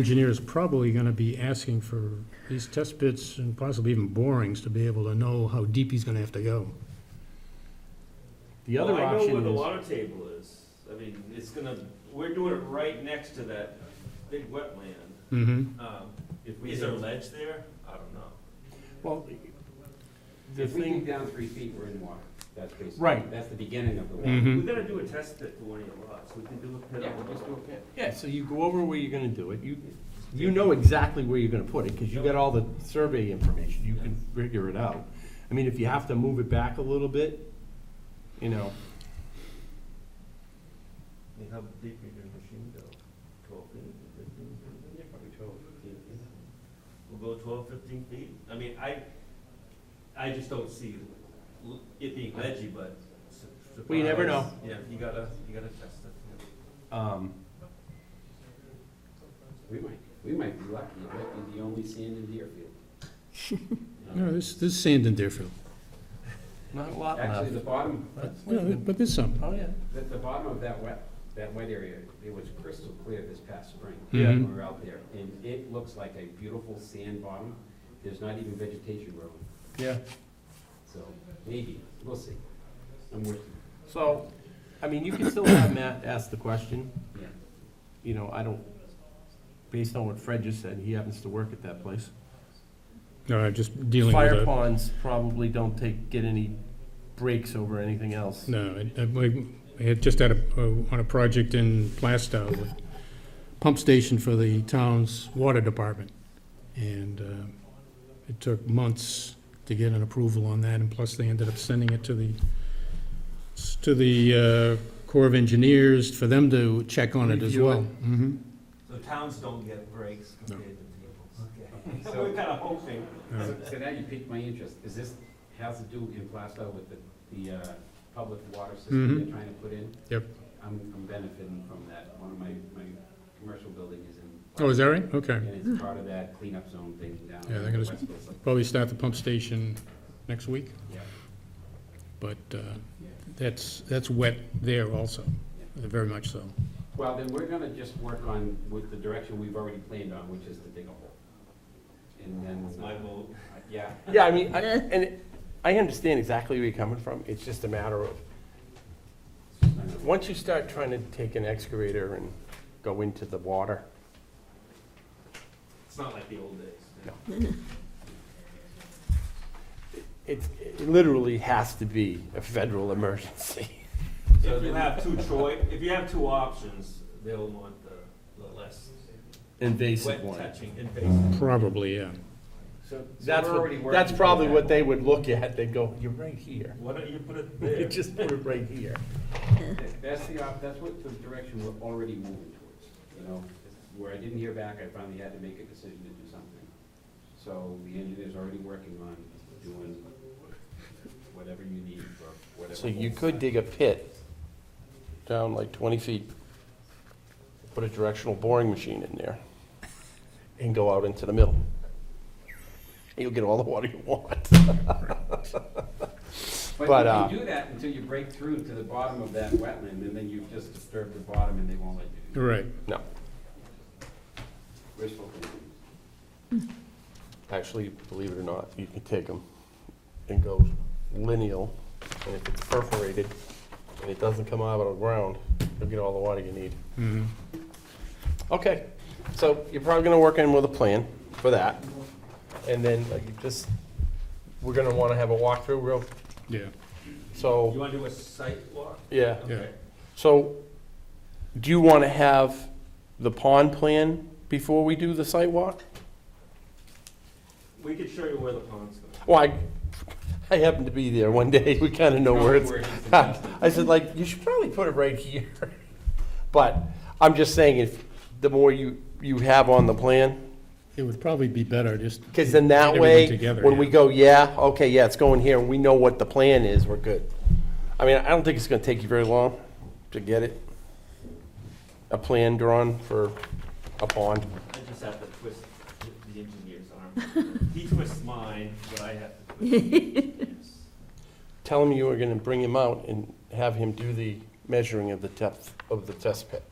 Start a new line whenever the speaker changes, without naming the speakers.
engineer is probably going to be asking for these test pits and possibly even borings to be able to know how deep he's going to have to go.
The
Well,
other
I know where
option
the
is,
water table is. I mean, it's gonna, we're doing it right next to that big wetland.
Mm-hmm.
Um, Is there a ledge there? I don't know.
well, the
If we dig
thing,
down three feet, we're in water. That's basically.
Right. Mm-hmm.
That's the beginning of the water.
Hmm?
Mhm.
We gotta do a test pit for one of your lots. We can do a pit.
Yeah,
on
we'll
one of
just do a
them.
pit.
yeah, so you go over where you're gonna do it, you, you know exactly where you're gonna put it, because you got all the survey information, you can figure it out. I mean, if you have to move it back a little bit, you know,
I mean, How deep is your machine go? Twelve feet, fifteen feet? Yeah, probably twelve, fifteen feet. We'll go twelve, fifteen feet. I mean, I, I just don't see l- it being ledgy, but. su-
Well, you never
surprise. Yeah, you gotta, you gotta test it. yeah.
um,
We might, we might be lucky. It might be the only sand in Deerfield.
No, there's, there's sand in Deerfield.
not a lot
Um, Actually, the
left.
bottom,
Yeah, but there's some.
Oh, yeah.
the, the bottom of that wet, that wet area, it was crystal clear this past spring.
Yeah.
Mm-hmm.
when We were out there, and it looks like a beautiful sand bottom. There's not even vegetation growing,
Yeah.
so maybe, we'll see. I'm with
So, I mean, you can still have Matt ask the question,
you.
you know, I don't, based on what Fred just said, he happens to work at that place.
No, I'm just dealing with
Fire
it.
ponds probably don't take, get any breaks over anything else.
No, I- I, we- we had just had a, uh, on a project in Plastow, a pump station for the town's water department. And uh, it took months to get an approval on that, and plus they ended up sending it to the, s- to the uh, Corps of Engineers for them to check on it as
Review it.
well. Mhm.
So towns don't get breaks
No.
compared to people's.
So-
So we're kind of hoping.
So so now you piqued my interest. Is this, has to do in Plastow with the, the uh, public water system they're trying to put in?
Mm-hmm. Yep.
I'm, I'm benefiting from that. One of my, my commercial building is in.
Oh, is that right? Okay.
And it's part of that cleanup zone thing down.
Yeah, they're gonna-
Westfield.
Probably start the pump station next week,
Yeah,
but uh,
yeah.
that's, that's wet there also, very much so.
Well, then we're gonna just work on with the direction we've already planned on, which is to dig a hole. And
It's
then,
my
uh,
vote.
yeah,
Yeah, I mean, I- and it- I understand exactly where you're coming from, it's just a matter of,
it's just not gonna work.
once you start trying to take an excavator and go into the water,
It's not like the old days.
No. it's, it literally has to be a federal emergency.
So if you have two Troy, if you have two options, they'll want the, the less
Invasive
wet
one.
touching invasive.
Probably, yeah.
So, so
That's,
we're already
what-
working.
that's
toward
probably
that.
what they would look at, they'd go, you're right here.
Why don't you put it
You
there?
just put it right here.
That- That's the, op- that's what the direction we're already moving towards, you know? Where I didn't hear back, I finally had to make a decision to do something. So the engineer's already working on doing whatever you need for whatever.
So you could dig a pit down like 20 feet, put a directional boring machine in there, and go out into the middle. You'll get all the water you want. but, uh,
But you can do that until you break through to the bottom of that wetland, and then you've just disturbed the bottom and they won't let you do it.
Right.
No,
Wishful thinking.
actually, believe it or not, you can take them and go lineal, and if it's perforated, and it doesn't come out of the ground, you'll get all the water you need.
Mhm.
Okay, so you're probably gonna work in with a plan for that, and then like you just, we're gonna wanna have a walkthrough real,
Yeah,
You
so,
wanna do a site walk?
yeah.
Okay.
So, do you wanna have the pond plan before we do the site walk?
We could show you where the pond's going.
Well, I, I happened to be there one day, we kinda know where it's.
Where it is the best.
I said like, you should probably put it right here, but I'm just saying if, the more you, you have on the plan,
it would probably be better just.
Because then that
get
way,
everything together,
when we
yeah.
go, yeah, okay, yeah, it's going here, and we know what the plan is, we're good. I mean, I don't think it's gonna take you very long to get it. A plan drawn for a pond.
I just have to twist the- the engineer's arm. He twists mine, but I have to twist. Yes.
Tell him you were gonna bring him out and have him do the measuring of the depth of the test pit.